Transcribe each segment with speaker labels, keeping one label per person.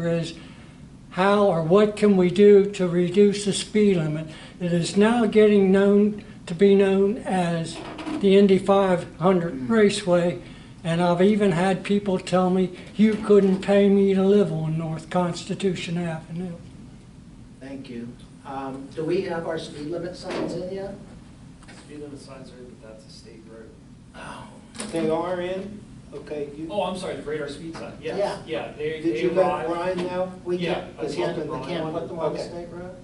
Speaker 1: is how or what can we do to reduce the speed limit? It is now getting known to be known as the Indy 500 Raceway, and I've even had people tell me, you couldn't pay me to live on North Constitution Avenue.
Speaker 2: Thank you. Um, Do we have our speed limit signs in yet?
Speaker 3: Speed limit signs are, in, but that's a state road.
Speaker 4: They are in, okay, you,
Speaker 3: Oh, I'm sorry, the radar speed sign,
Speaker 2: Yeah.
Speaker 3: yes, yeah, they,
Speaker 4: did
Speaker 3: they
Speaker 4: you let
Speaker 3: arrive.
Speaker 4: Ryan know?
Speaker 2: We
Speaker 3: Yeah,
Speaker 2: can't,
Speaker 3: I
Speaker 2: we
Speaker 3: talked
Speaker 2: can't,
Speaker 3: to
Speaker 2: we
Speaker 3: Brian.
Speaker 2: can't put them on the
Speaker 4: Okay.
Speaker 2: state road?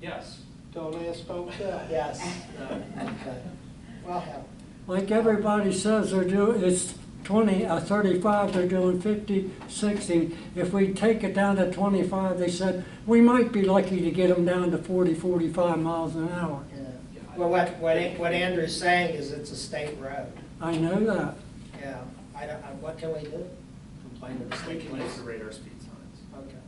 Speaker 3: Yes.
Speaker 4: Don't ask folks that.
Speaker 2: Yes.
Speaker 3: No.
Speaker 2: Okay. Well, hell,
Speaker 1: Like everybody says, they're doing, it's 20, uh, 35, they're doing 50, 60. If we take it down to 25, they said, we might be lucky to get them down to 40, 45 miles an hour.
Speaker 2: yeah. Well, what, what what Andrew's saying is it's a state road.
Speaker 1: I know that.
Speaker 2: Yeah, I don't, I- what can we do? Complain to the
Speaker 3: We
Speaker 2: state
Speaker 3: can use the
Speaker 2: police?
Speaker 3: radar speed signs.
Speaker 2: Okay.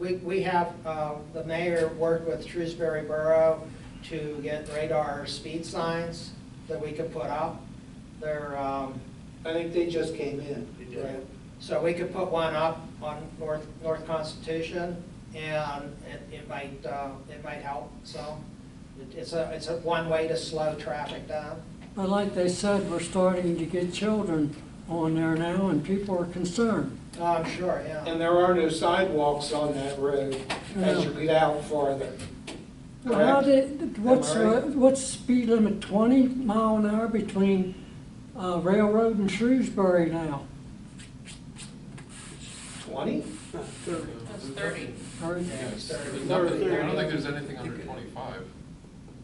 Speaker 2: We, we have, uh, the mayor worked with Shrewsbury Borough to get radar speed signs that we could put up. They're, um,
Speaker 4: I think they just came in.
Speaker 3: They
Speaker 2: Right.
Speaker 3: did.
Speaker 2: So we could put one up on North, North Constitution, and it, it might, uh, it might help, so. it- It's a, it's a one way to slow traffic down.
Speaker 1: But like they said, we're starting to get children on there now, and people are concerned.
Speaker 2: Oh, I'm sure, yeah.
Speaker 4: And there are no sidewalks on that road as you get out farther.
Speaker 1: Well, How
Speaker 4: correct?
Speaker 1: did, what's,
Speaker 4: Am I right?
Speaker 1: uh, what's speed limit, 20 mile an hour between uh, Railroad and Shrewsbury now?
Speaker 4: Twenty?
Speaker 5: That's thirty.
Speaker 1: Or is-
Speaker 2: Yeah, it's
Speaker 6: Yes,
Speaker 2: thirty.
Speaker 6: there's nothing, I don't think there's anything under twenty-five,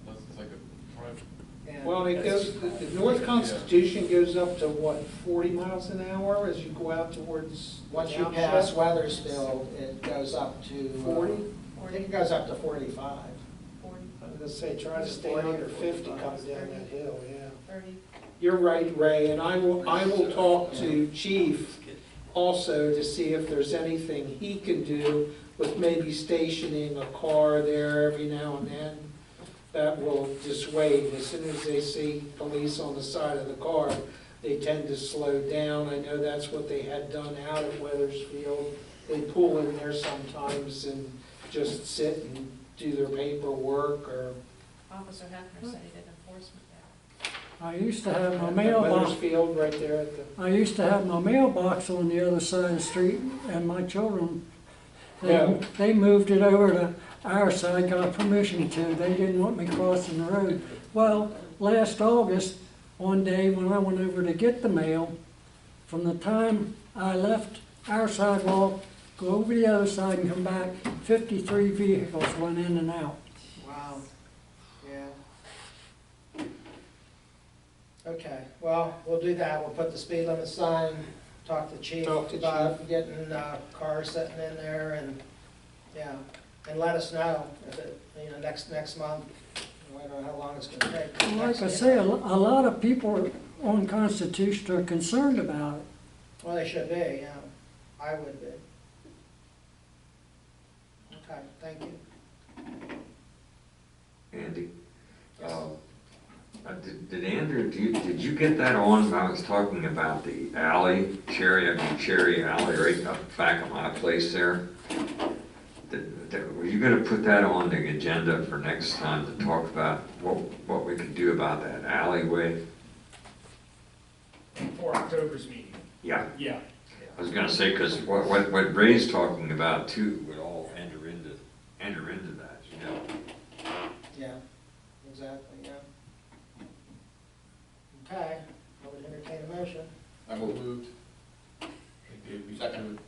Speaker 6: unless it's like a private.
Speaker 2: Yeah.
Speaker 4: Well, it goes, the the North Constitution goes up to what, forty miles an hour as you go out towards.
Speaker 2: Once you
Speaker 4: Yampa?
Speaker 2: pass Weathersfield, it goes up to. uh,
Speaker 4: 40?
Speaker 2: I think it goes up to forty-five.
Speaker 4: I was gonna say, try to stay under fifty coming down that hill, yeah.
Speaker 5: Thirty.
Speaker 4: You're right, Ray, and I will, I will talk to Chief also to see if there's anything he can do with maybe stationing a car there every now and then. That will dissuade, as soon as they see police on the side of the car, they tend to slow down. I know that's what they had done out at Weathersfield. They pull in there sometimes and just sit and do their paperwork or
Speaker 5: Officer Hefner said he did enforcement there.
Speaker 1: I used to have my
Speaker 4: At
Speaker 1: mailbox
Speaker 4: Weathersfield right there at the.
Speaker 1: I used to have my mailbox on the other side of the street, and my children,
Speaker 4: Yeah.
Speaker 1: they, they moved it over to our side, got permission to, they didn't want me crossing the road. Well, last August, one day when I went over to get the mail, from the time I left our sidewalk, go over the other side and come back, fifty-three vehicles went in and out.
Speaker 2: Wow, yeah. Okay, well, we'll do that, we'll put the speed limit sign, talk to chief
Speaker 4: Talk to
Speaker 2: about getting, uh, cars sitting in there and, yeah. And let us know if it, you know, next, next month, I don't know how long it's gonna take.
Speaker 1: And Like I
Speaker 2: Next-
Speaker 1: say, a lo- a lot of people on Constitution are concerned about it.
Speaker 2: Well, they should be, yeah, I would be. Okay, thank you.
Speaker 7: Andy. um, uh, Did did Andrew, do you, did you get that on when I was talking about the alley, Cherry, I mean Cherry Alley, right up back at my place there? Did- did- Were you gonna put that on the agenda for next time to talk about what, what we could do about that alleyway?
Speaker 3: For October's meeting,
Speaker 7: Yeah,
Speaker 3: yeah.
Speaker 7: I was gonna say, cause what, what what Ray's talking about too would all enter into, enter into that, you know?
Speaker 2: Yeah, exactly, yeah. Okay, I would entertain a motion.
Speaker 6: I moved. Second.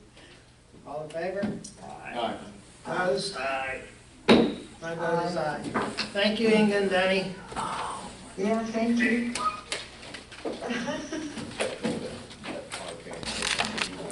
Speaker 2: All in favor?
Speaker 6: Aye.
Speaker 2: Opposed? Aye. My vote is aye. Thank you, Inge and Danny.
Speaker 8: Yeah, thank you.